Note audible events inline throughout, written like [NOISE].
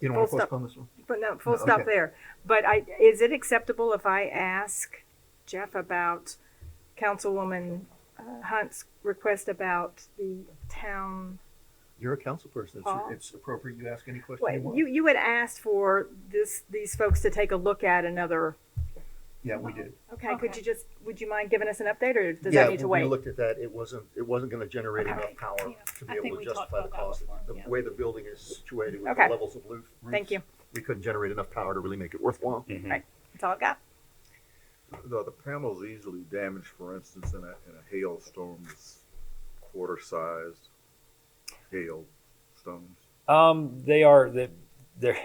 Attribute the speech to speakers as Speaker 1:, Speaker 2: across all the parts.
Speaker 1: You don't want to
Speaker 2: Full stop.
Speaker 1: postpone this one?
Speaker 2: But no, full
Speaker 1: No,
Speaker 2: stop
Speaker 1: okay.
Speaker 2: there. But I, is it acceptable if I ask Jeff about Councilwoman uh, Hunt's request about the town?
Speaker 1: You're a council person.
Speaker 2: Paul?
Speaker 1: It's, it's appropriate you ask any question you
Speaker 2: Well, you,
Speaker 1: want.
Speaker 2: you had asked for this, these folks to take a look at another,
Speaker 1: Yeah, we did.
Speaker 2: okay, could
Speaker 3: Okay.
Speaker 2: you just, would you mind giving us an update or does
Speaker 1: Yeah,
Speaker 2: that need to
Speaker 1: We
Speaker 2: wait?
Speaker 1: looked at that. It wasn't, it wasn't gonna generate
Speaker 2: Okay.
Speaker 1: enough power
Speaker 3: Yeah.
Speaker 1: to
Speaker 3: I
Speaker 1: be
Speaker 3: think
Speaker 1: able to
Speaker 3: we talked
Speaker 1: justify the
Speaker 3: about that
Speaker 1: cost.
Speaker 3: before,
Speaker 1: The
Speaker 3: yeah.
Speaker 1: way the building is situated with the
Speaker 2: Okay.
Speaker 1: levels of roof.
Speaker 2: Thank
Speaker 1: roofs,
Speaker 2: you.
Speaker 1: We couldn't generate enough power to really make it worthwhile.
Speaker 4: Mm-hmm.
Speaker 2: That's all I've got.
Speaker 5: The, the panel's easily damaged, for instance, in a, in a hailstorm that's quarter-sized hailstones.
Speaker 4: Um, they are the there.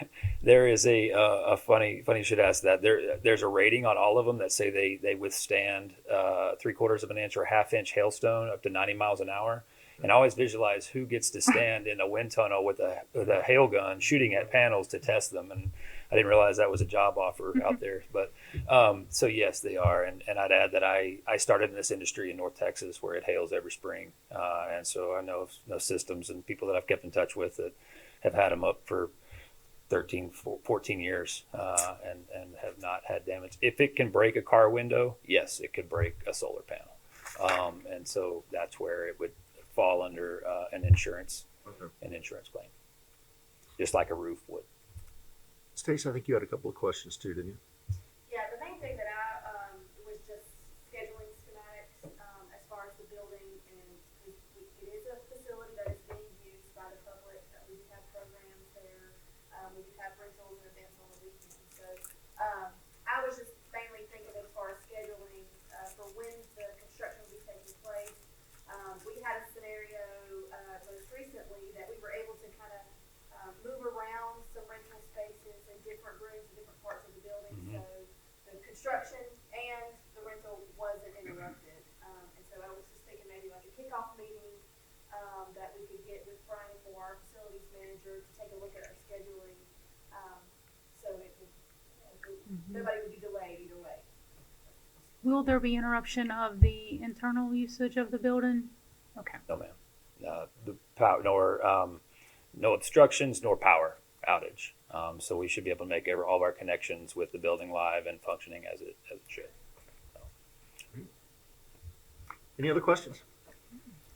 Speaker 4: There is a uh, a funny funny you should ask that. There there's a rating on all of them that say they they withstand uh, three quarters of an inch or a half inch hailstone up to ninety miles an hour. And I always visualize who gets to stand in a wind tunnel with a with a hail gun shooting at panels to test them. And I didn't realize that was a job offer out there. But um, so yes, they are. And and I'd add that I I started in this industry in North Texas where it hails every spring. Uh, and so I know know systems and people that I've kept in touch with that have had them up for 13, 14 years uh, and, and have not had damage. If it can break a car window, yes, it could break a solar panel. Um, and so that's where it would fall under uh, an insurance
Speaker 5: Okay.
Speaker 4: an insurance claim, just like a roof would.
Speaker 1: Stacy, I think you had a couple of questions too, didn't you?
Speaker 6: Yeah, the main thing that I, um, was just scheduling schematics, um, as far as the building and we, we, it is a facility that is being used by the public, uh, we do have programs there, um, we do have rentals and events on the weekends, so, um, I was just mainly thinking as far as scheduling, uh, for when the construction will be taking place. Um, we had a scenario, uh, most recently that we were able to kind of, um, move around some rental spaces in different rooms in different parts of the building.
Speaker 4: Mhm.
Speaker 6: So the construction and the rental wasn't interrupted. Um, and so I was just thinking maybe like a kickoff meeting um, that we could get with Brian Moore, our facilities manager, to take a look at our scheduling. Um, so it would, nobody would be delayed either way.
Speaker 3: Mm-hmm. Will there be interruption of the internal usage of the building? Okay.
Speaker 4: No, ma'am. Uh, the power, nor um, no obstructions, nor power outage. Um, so we should be able to make every, all of our connections with the building live and functioning as it, as it should.
Speaker 1: Any other questions?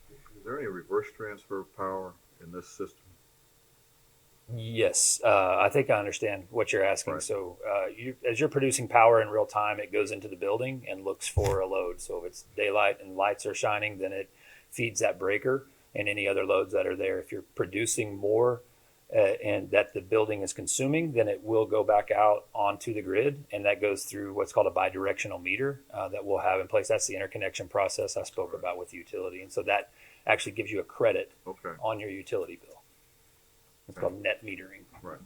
Speaker 5: Is there any reverse transfer of power in this system?
Speaker 4: Yes, uh, I think I understand what you're asking.
Speaker 5: Right.
Speaker 4: So, uh, you, as you're producing power in real time, it goes into the building and looks for a load. So, if it's daylight and lights are shining, then it feeds that breaker and any other loads that are there. If you're producing more uh, and that the building is consuming, then it will go back out onto the grid, and that goes through what's called a bidirectional meter uh, that we'll have in place. That's the interconnection process I spoke about with utility, and so that actually gives you a credit
Speaker 5: Okay,
Speaker 4: on your utility bill. It's called net metering.
Speaker 5: right.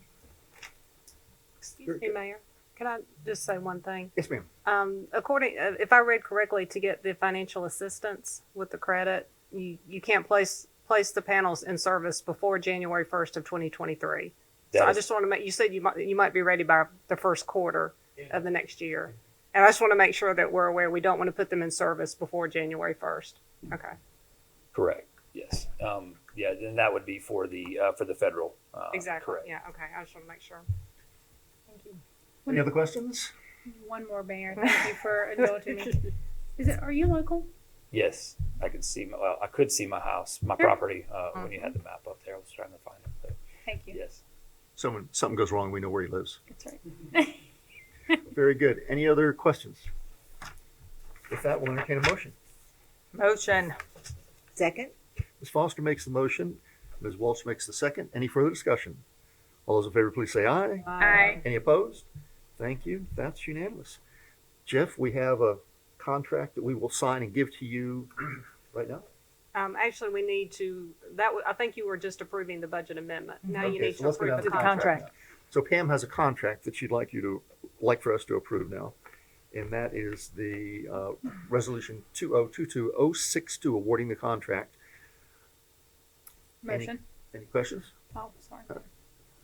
Speaker 7: Excuse me, Mayor. Can I just say one thing?
Speaker 1: Yes, ma'am.
Speaker 7: Um, according, uh, if I read correctly, to get the financial assistance with the credit, you, you can't place, place the panels in service before January first of twenty twenty-three. So
Speaker 4: That
Speaker 7: I
Speaker 4: is-
Speaker 7: just want to make, you said you might, you might be ready by the first quarter of the next year. And I just want to make sure that we're aware, we don't want to put them in service before January first. Okay.
Speaker 4: Correct. Yes. Um, yeah. Then that would be for the uh, for the federal. Uh,
Speaker 7: Exactly.
Speaker 4: Correct.
Speaker 7: Yeah, okay. I just want to make sure.
Speaker 1: Any other questions?
Speaker 3: One more, Mayor. Thank you
Speaker 1: [LAUGHS]
Speaker 3: for indulging me. Is it, are you local?
Speaker 4: Yes. I could see. My, well, I could see my house, my
Speaker 3: Sure.
Speaker 4: property, uh, when you had
Speaker 7: Mm-hmm.
Speaker 4: the map up there. I was trying to find it. But
Speaker 3: Thank you.
Speaker 4: yes.
Speaker 1: Someone, something goes wrong, we know where he lives.
Speaker 3: That's right.
Speaker 1: Very good. Any other questions? If that, we'll entertain a motion.
Speaker 7: [LAUGHS] Motion.
Speaker 8: Second?
Speaker 1: Ms. Foster makes the motion. Ms. Walsh makes the second. Any further discussion? All those in favor, please say aye.
Speaker 3: Aye.
Speaker 1: Any opposed? Thank you. That's unanimous. Jeff, we have a contract that we will sign and give to you [CLEARS THROAT] right now.
Speaker 7: Um, actually, we need to, that, wa- I think you were just approving the budget amendment. Now you
Speaker 1: Okay,
Speaker 7: need
Speaker 1: so
Speaker 7: to
Speaker 1: let's go down
Speaker 7: approve
Speaker 1: to
Speaker 7: the
Speaker 1: the
Speaker 7: contract.
Speaker 1: contract. So Pam has a contract that she'd like you to, like for us to approve now. And that is the uh, resolution 2022062 awarding the contract.
Speaker 3: Motion.
Speaker 1: Any questions?
Speaker 3: Oh, sorry.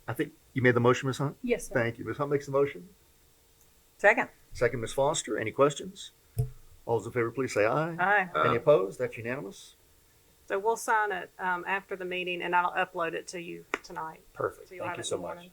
Speaker 1: I think you made the motion, Ms. Hunt?
Speaker 3: Yes, sir.
Speaker 1: Thank you. Ms. Hunt makes the motion.
Speaker 7: Second.
Speaker 1: Second, Ms. Foster. Any questions? All those in favor, please say aye.
Speaker 7: Aye.
Speaker 1: Any opposed? That's unanimous.
Speaker 7: So we'll sign it um, after the meeting, and I'll upload it to you tonight.
Speaker 4: Perfect.
Speaker 7: So you'll
Speaker 4: Thank
Speaker 7: have
Speaker 4: you
Speaker 7: it in
Speaker 4: so
Speaker 7: the
Speaker 4: much.
Speaker 7: morning.